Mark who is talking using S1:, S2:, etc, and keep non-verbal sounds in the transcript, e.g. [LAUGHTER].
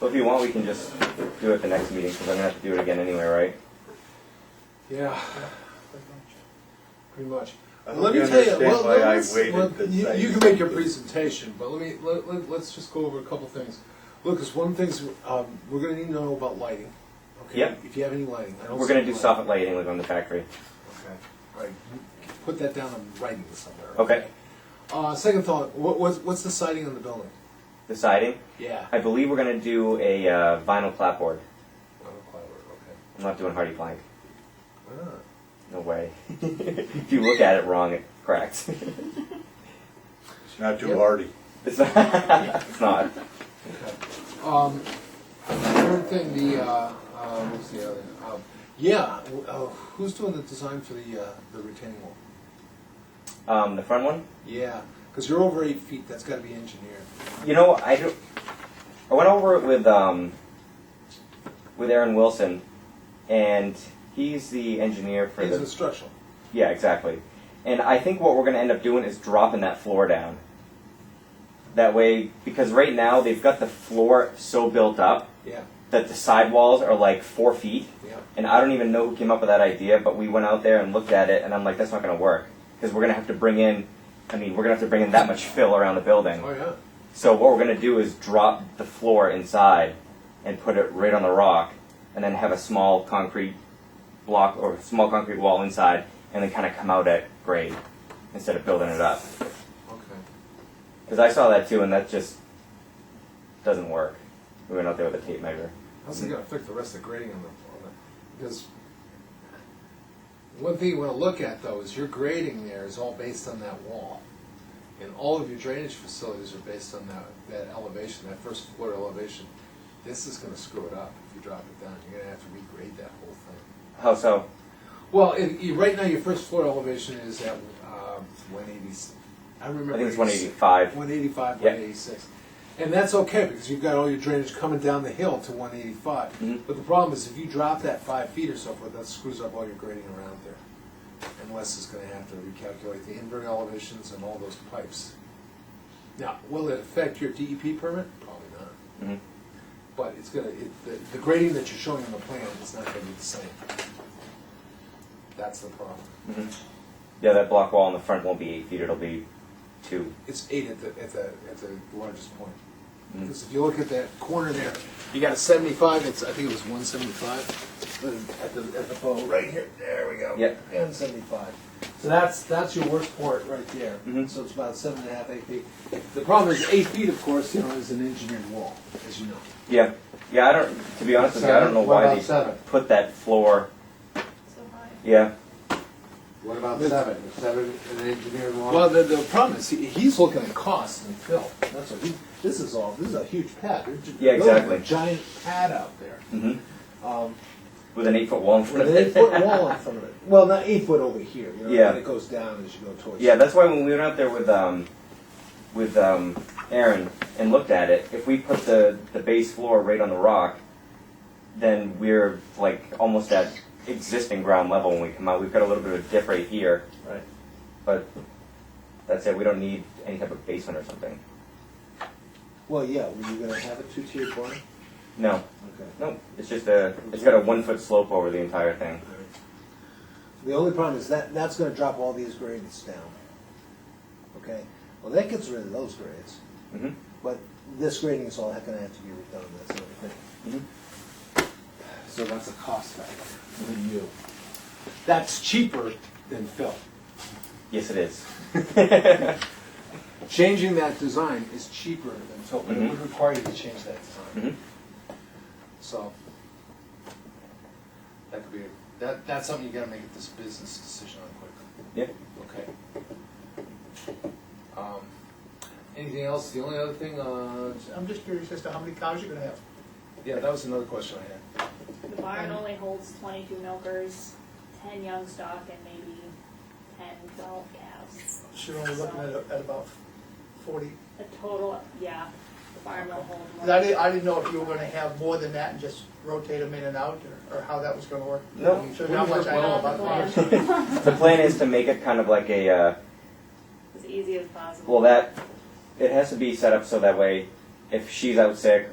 S1: Well, if you want, we can just do it at the next meeting, because I'm gonna have to do it again anyway, right?
S2: Yeah. Pretty much.
S3: I
S2: Let
S3: hope
S2: me
S3: you
S2: tell you,
S3: understand
S2: well,
S3: why I
S2: let's,
S3: waited
S2: let-
S3: to
S2: you,
S3: say
S2: you can make your
S3: this.
S2: presentation, but let me, let, let, let's just go over a couple things. Lucas, one of the things, um, we're gonna need to know about lighting, okay?
S1: Yep.
S2: If you have any lighting. I don't
S1: We're
S2: see
S1: gonna do
S2: lighting.
S1: soffit lighting like on the factory.
S2: Okay, right, You put that down in writing somewhere.
S1: Okay.
S2: Uh, second thought, what, what's, what's the siding on the building? Oh,
S1: The siding,
S2: Yeah.
S1: I believe we're gonna do a uh, vinyl clapboard.
S2: okay.
S1: I'm not doing hardy plank.
S2: Why
S3: Ah.
S2: not?
S1: No way. [LAUGHS] if you look at it wrong, it cracks. [LAUGHS]
S3: It's not too
S2: Yep.
S3: hardy.
S1: it's, not, [LAUGHS] it's not.
S2: Um, third thing, the, uh, uh, what's the other, um, yeah, w- uh, who's doing the design for the, uh, the retaining wall?
S1: Um, the front one.
S2: Yeah, because you're over eight feet, that's gotta be engineered.
S1: You know, I do, I went over it with um, with Aaron Wilson, and he's the engineer for
S2: It's
S1: the
S2: instructional.
S1: Yeah, exactly. And I think what we're going to end up doing is dropping that floor down. That way, because right now they've got the floor so built up
S2: Yeah,
S1: that the sidewalls are like four feet.
S2: yeah,
S1: And I don't even know who came up with that idea, but we went out there and looked at it, and I'm like, that's not going to work. Because we're going to have to bring in, I mean, we're going to have to bring in that much fill around the building.
S2: oh, yeah.
S1: So what we're going to do is drop the floor inside and put it right on the rock, and then have a small concrete block or small concrete wall inside, and then kind of come out at grade instead of building it up.
S2: Okay.
S1: Because I saw that too, and that just doesn't work. We went out there with a tape measure.
S2: How's it gonna affect the rest of the grading on the, on the, because one thing you wanna look at though is your grading there is all based on that wall. And all of your drainage facilities are based on that, that elevation, that first floor elevation. This is gonna screw it up if you drop it down. You're gonna have to regrade that whole thing.
S1: How so?
S2: Well, and you, right now, your first floor elevation is at, um, one eighty, I remember.
S1: I think it's
S2: eighty-
S1: 185.
S2: 185,
S1: Yeah.
S2: 186. And that's okay, because you've got all your drainage coming down the hill to one
S1: Mhm.
S2: eighty-five. But the problem is, if you drop that five feet or so forth, that screws up all your grading around there. Unless it's gonna have to recalculate the invert elevations and all those pipes. Now, will it affect your DEP permit? Probably not.
S1: hmm
S2: But it's gonna, it, the, the grading that you're showing on the plan is not gonna be the same. That's the problem.
S1: hmm Yeah, that block wall in the front won't be eight feet. It'll be two.
S2: It's eight at the, at the, at the largest point.
S1: Mhm.
S2: Because if you look at that corner there, you got a seventy-five, it's, I think it was one seventy-five. At the, at the bow, right here, there we go.
S1: Yep.
S2: And seventy-five. So that's, that's your worst part right there.
S1: Mhm.
S2: So it's about seven and a half, eight feet. The problem is eight feet, of course, you know, is an engineered wall, as you know.
S1: Yeah, yeah. I don't. To be honest with you, I don't know
S4: What
S1: why
S4: about
S1: they
S4: seven?
S1: put that floor.
S5: So high.
S1: Yeah.
S4: What about seven? Is seven an engineered wall?
S2: Well, the, the problem is, he- he's looking at cost and fill, that's what he, this is all, this is a huge pad. They're ju-
S1: Yeah,
S2: building a
S1: exactly.
S2: Giant pad out there.
S1: hmm
S2: Um,
S1: With an eight foot wall in front
S2: With
S1: of
S2: an eight
S1: it.
S2: foot wall in front of it. Well, not eight foot over here. You know,
S1: Yeah.
S2: And it goes down as you go
S1: [LAUGHS]
S2: towards.
S1: Yeah, that's why when we went out there with um, with um, Aaron and looked at it, if we put the the base floor right on the rock, then we're like almost at existing ground level when we come out. We've got a little bit of a dip right here,
S2: Right.
S1: but that's it. We don't need any type of basement or something.
S2: Well, yeah. Were you gonna have a two tiered barn?
S1: No,
S2: Okay.
S1: no, it's just a it's got a one foot slope over the entire thing.
S2: All right. The only problem is that that's gonna drop all these grades down. Okay. Well, that gets rid of those grades,
S1: hmm
S2: but this grading is all gonna have to be redone. That's the only thing.
S1: Mhm.
S2: Mm-hmm. So that's a cost factor for you. That's cheaper than fill.
S1: Yes, it [LAUGHS] Mm-hmm. is.
S2: Changing that design is cheaper than fill, but it would
S1: Mhm.
S2: require you to change that design.
S1: Mhm.
S2: So that could be a, that that's something you gotta make this business decision on quickly.
S1: Yeah.
S2: Okay. Um, anything else? The only other thing, uh,
S6: I'm just curious as to how many cows you're gonna have.
S2: yeah, that was another question I had.
S5: The barn only holds twenty-two milkers, ten young stock, and maybe 10, 12 cows.
S6: So you're only looking at, at about forty.
S5: A total, yeah, the barn will hold more.
S6: 'Cause I didn't, I didn't know if you were gonna have more than that and just rotate them in and out, or, or how that was gonna work.
S1: No,
S6: So how much I know about
S5: Not
S6: farms.
S5: the plan.
S1: the plan is to make it kind of like a. Uh,
S5: [LAUGHS] As easy as possible.
S1: Well, that it has to be set up so that way, if she's out sick